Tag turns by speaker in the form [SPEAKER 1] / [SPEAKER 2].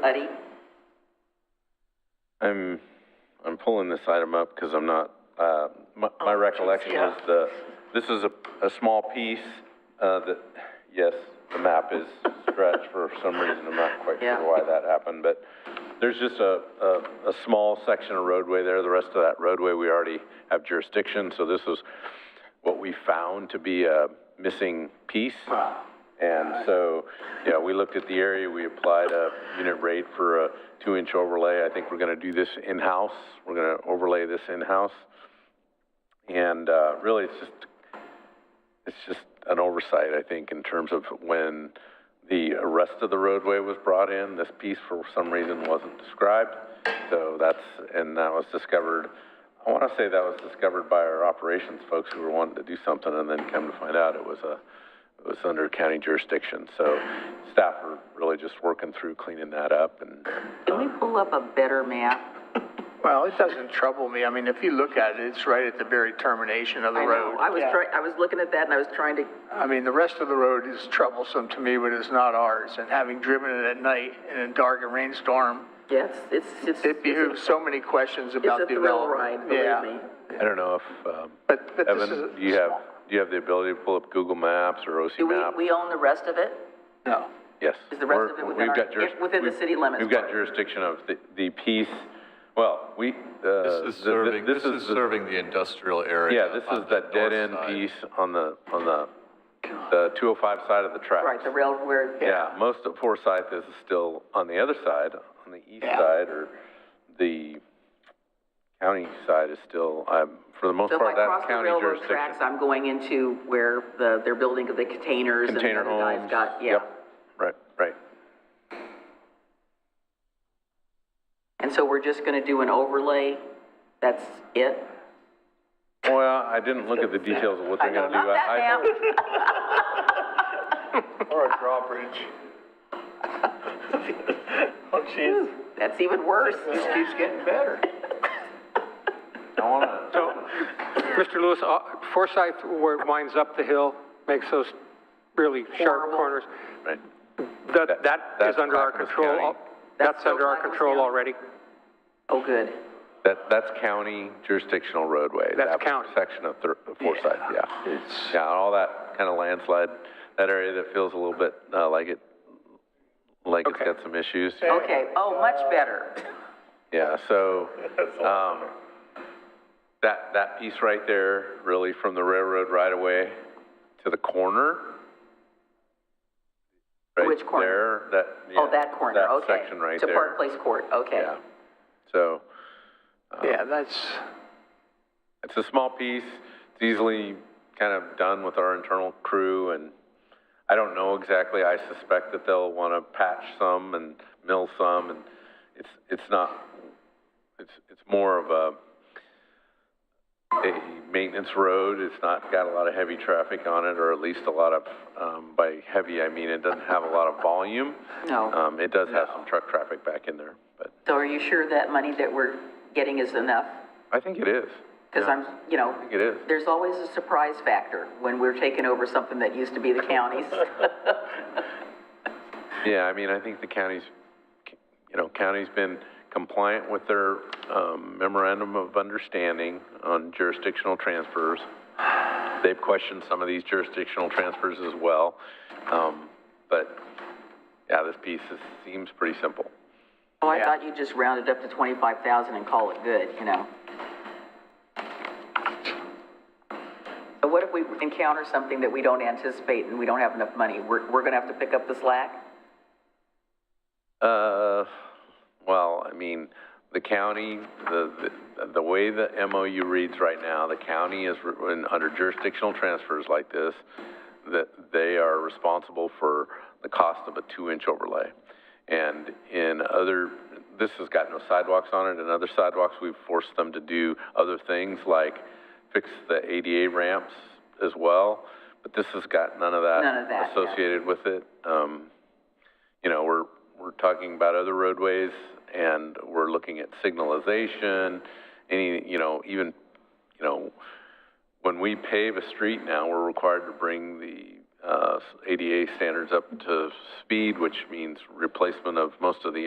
[SPEAKER 1] buddy?
[SPEAKER 2] I'm, I'm pulling this item up because I'm not, uh, my, my recollection
[SPEAKER 1] yeah.
[SPEAKER 2] is the, this is a, a small piece, uh, that, yes, the map is stretched for some reason, I'm not quite
[SPEAKER 1] Yeah.
[SPEAKER 2] sure why that happened, but there's just a, a, a small section of roadway there, the rest of that roadway, we already have jurisdiction, so this is what we found to be a missing piece. And so, yeah, we looked at the area, we applied a unit rate for a two-inch overlay. I think we're gonna do this in-house, we're gonna overlay this in-house. And, uh, really, it's just, it's just an oversight, I think, in terms of when the rest of the roadway was brought in, this piece for some reason wasn't described. So that's, and that was discovered, I wanna say that was discovered by our operations folks who were wanting to do something and then come to find out it was a, it was under county jurisdiction. So staff are really just working through cleaning that up and,
[SPEAKER 1] Can we pull up a better map?
[SPEAKER 3] Well, it doesn't trouble me. I mean, if you look at it, it's right at the very termination of the
[SPEAKER 1] I know,
[SPEAKER 3] road.
[SPEAKER 1] I was trying, I was looking at that and I was trying to,
[SPEAKER 3] I mean, the rest of the road is troublesome to me, but it's not ours. And having driven it at night in a dark and rainstorm,
[SPEAKER 1] yes, it's, it's.
[SPEAKER 3] it behooves so many questions about
[SPEAKER 1] It's a thrill
[SPEAKER 3] development.
[SPEAKER 1] ride, believe
[SPEAKER 3] Yeah.
[SPEAKER 1] me.
[SPEAKER 2] I don't know if, um,
[SPEAKER 3] But, but this
[SPEAKER 2] Evan,
[SPEAKER 3] is.
[SPEAKER 2] do you have, do you have the ability to pull up Google Maps or OC
[SPEAKER 1] Do we,
[SPEAKER 2] Map?
[SPEAKER 1] we own the rest of it?
[SPEAKER 3] No.
[SPEAKER 2] Yes.
[SPEAKER 1] Is the rest
[SPEAKER 2] We're-
[SPEAKER 1] of it within
[SPEAKER 2] we've
[SPEAKER 1] our-
[SPEAKER 2] got juris-
[SPEAKER 1] if- within the
[SPEAKER 2] we've-
[SPEAKER 1] city limits?
[SPEAKER 2] We've got jurisdiction of the, the piece, well, we, uh.
[SPEAKER 4] This
[SPEAKER 2] the-
[SPEAKER 4] is
[SPEAKER 2] the-
[SPEAKER 4] serving, this is
[SPEAKER 2] the-
[SPEAKER 4] serving the industrial area.
[SPEAKER 2] Yeah, this
[SPEAKER 4] on
[SPEAKER 2] is that
[SPEAKER 4] the north
[SPEAKER 2] dead end
[SPEAKER 4] side.
[SPEAKER 2] piece on the, on the, the two oh five side of the tracks.
[SPEAKER 1] Right, the rail, where,
[SPEAKER 2] Yeah, most of Forsyth is still on the other side, on the east
[SPEAKER 3] Yeah.
[SPEAKER 2] side, or the county side is still, um, for the most
[SPEAKER 1] so if I
[SPEAKER 2] part,
[SPEAKER 1] cross
[SPEAKER 2] that's
[SPEAKER 1] the
[SPEAKER 2] county
[SPEAKER 1] railroad tracks,
[SPEAKER 2] jurisdiction.
[SPEAKER 1] I'm going into where the, they're building the containers and the
[SPEAKER 2] Container
[SPEAKER 1] other guys
[SPEAKER 2] homes.
[SPEAKER 1] got, yeah.
[SPEAKER 2] yep, Right, right.
[SPEAKER 1] And so we're just gonna do an overlay, that's it?
[SPEAKER 2] Well, I didn't look at the details of what
[SPEAKER 1] I
[SPEAKER 2] they're
[SPEAKER 1] know,
[SPEAKER 2] gonna do.
[SPEAKER 1] not that
[SPEAKER 2] I-
[SPEAKER 1] map,
[SPEAKER 3] Or a drawbridge. Oh, jeez.
[SPEAKER 1] that's even worse.
[SPEAKER 3] This keeps getting better.
[SPEAKER 2] I wanna,
[SPEAKER 5] So, Mr. Lewis, uh, Forsyth, where it winds up the hill, makes those really sharp
[SPEAKER 1] Horrible.
[SPEAKER 5] corners.
[SPEAKER 2] right.
[SPEAKER 5] That, that is
[SPEAKER 2] that's
[SPEAKER 5] under our
[SPEAKER 2] Clackamas
[SPEAKER 5] control.
[SPEAKER 2] County.
[SPEAKER 5] al-
[SPEAKER 1] That's
[SPEAKER 5] That's
[SPEAKER 1] still
[SPEAKER 5] under our
[SPEAKER 1] Clackamas
[SPEAKER 5] control
[SPEAKER 1] County.
[SPEAKER 5] already.
[SPEAKER 1] Oh, good.
[SPEAKER 2] That, that's county jurisdictional roadway.
[SPEAKER 5] That's
[SPEAKER 2] that
[SPEAKER 5] county.
[SPEAKER 2] Section of Thir- of Forsyth, yeah. Yeah, all that kind of landslide, that area that feels a little bit, uh, like it, like it's
[SPEAKER 5] Okay.
[SPEAKER 2] got some issues.
[SPEAKER 1] Okay, oh, much better.
[SPEAKER 2] Yeah, so, um, that, that piece right there, really from the railroad right away to the corner. right
[SPEAKER 1] Which corner?
[SPEAKER 2] There, that,
[SPEAKER 1] Oh,
[SPEAKER 2] yeah,
[SPEAKER 1] that corner, okay.
[SPEAKER 2] That section right there.
[SPEAKER 1] To Park Place Court, okay.
[SPEAKER 2] Yeah, so.
[SPEAKER 3] Yeah, that's.
[SPEAKER 2] It's a small piece, it's easily kind of done with our internal crew, and I don't know exactly, I suspect that they'll want to patch some and mill some, and it's, it's not, it's, it's more of a, a maintenance road, it's not got a lot of heavy traffic on it, or at least a lot of, um, by heavy, I mean, it doesn't have a lot of volume.
[SPEAKER 1] No.
[SPEAKER 2] Um, it does have some truck traffic back in there, but
[SPEAKER 1] So are you sure that money that we're getting is enough?
[SPEAKER 2] I think it is.
[SPEAKER 1] Because
[SPEAKER 2] Yeah,
[SPEAKER 1] I'm, you know,
[SPEAKER 2] I think it is.
[SPEAKER 1] there's always a surprise factor when we're taking over something that used to be the county's.
[SPEAKER 2] Yeah, I mean, I think the county's, you know, county's been compliant with their um, memorandum of understanding on jurisdictional transfers. They've questioned some of these jurisdictional transfers as well. Um, But, yeah, this piece is- seems pretty simple.
[SPEAKER 1] Oh, I thought you'd just round it up to 25,000 and call it good, you know? But what if we encounter something that we don't anticipate and we don't have enough money? We're, we're gonna have to pick up the slack?
[SPEAKER 2] Uh, well, I mean, the county, the, the, the way the MOU reads right now, the county is, re- when, under jurisdictional transfers like this, that they are responsible for the cost of a two-inch overlay. And in other, this has got no sidewalks on it, in other sidewalks, we've forced them to do other things like fix the ADA ramps as well, but this has got none of that
[SPEAKER 1] None of that, yeah.
[SPEAKER 2] associated with it. Um, you know, we're, we're talking about other roadways and we're looking at signalization, any, you know, even, you know, when we pave a street now, we're required to bring the, uh, ADA standards up to speed, which means replacement of most of the